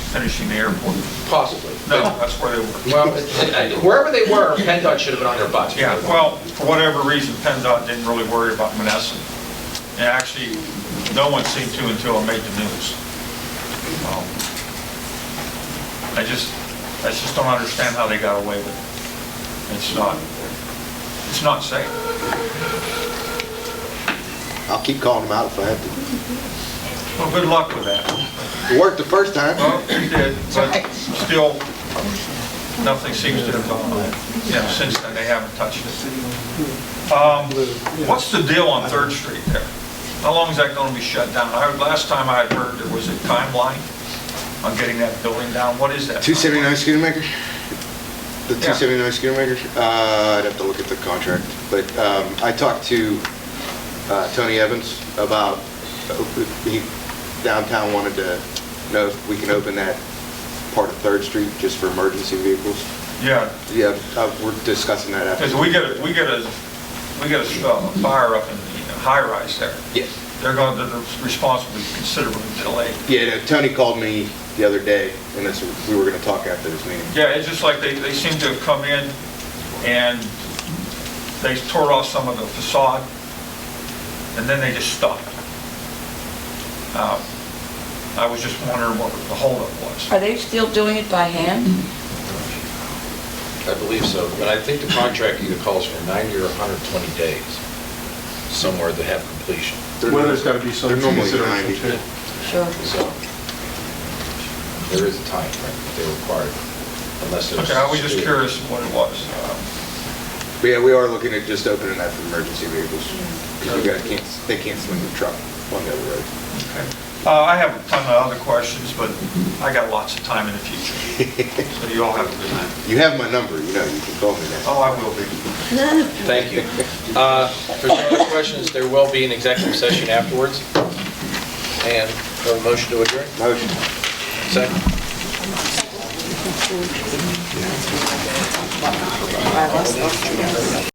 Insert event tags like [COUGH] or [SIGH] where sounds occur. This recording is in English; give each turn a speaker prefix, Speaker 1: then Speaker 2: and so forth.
Speaker 1: finishing the airport.
Speaker 2: possibly.
Speaker 1: No, that's where they were. [LAUGHS]
Speaker 2: Well, it- it- wherever they were, PennDOT should have been on their butts.
Speaker 1: Yeah, well, for whatever reason, PennDOT didn't really worry about Menneson. And actually, no one seemed to until it made the news. Um, I just, I just don't understand how they got away with it. It's not, it's not safe.
Speaker 3: I'll keep calling them out if I have
Speaker 1: Well, good luck with that.
Speaker 3: to. It worked the first time.
Speaker 1: Well, you did, but still, nothing seems to have gone on. Yeah, since then, they haven't touched it. Um, What's the deal on Third Street there? How long is that going to be shut down? I, last time I had heard, there was a timeline on getting that building down. What is that?
Speaker 3: 279 Schoonamaker? The
Speaker 1: Yeah.
Speaker 3: 279 Schoonamaker? Uh, I'd have to look at the contract, but um, I talked to uh, Tony Evans about, he downtown wanted to know if we can open that part of Third Street just for emergency vehicles.
Speaker 1: Yeah,
Speaker 3: Yeah, uh, we're discussing that after.
Speaker 1: because we get, a- we get a, we get a uh, fire up in the high rise there.
Speaker 3: Yes.
Speaker 1: They're going to, they're responsible for considerably delayed.
Speaker 3: Yeah, no, Tony called me the other day, and that's, we were gonna talk after this meeting.
Speaker 1: Yeah, it's just like they, they seem to have come in and they tore off some of the facade and then they just stopped. Um, I was just wondering what the holdup was.
Speaker 4: Are they still doing it by hand?
Speaker 5: Mm-hmm. I believe so, but I think the contract either calls for 90 or 120 days somewhere to have completion,
Speaker 6: Weather's got to be some
Speaker 3: They're normally
Speaker 6: consideration
Speaker 3: 90.
Speaker 4: Sure.
Speaker 6: too.
Speaker 5: so there is a time frame that they require, unless it's...
Speaker 1: Okay, I was just curious what it was. Um,
Speaker 3: But yeah, we are looking at just opening that for emergency vehicles, because we got, can't, they can't swing the truck on the other road.
Speaker 1: okay. Uh, I have a ton of other questions, but I got lots of time in the [LAUGHS] future. So you all have a good night.
Speaker 3: You have my number, you know, you can call me now.
Speaker 1: Oh, I will be.
Speaker 5: Thank you. Uh, For some other questions, there will be an executive session afterwards, and a motion to adjourn,
Speaker 3: Motion.
Speaker 5: second?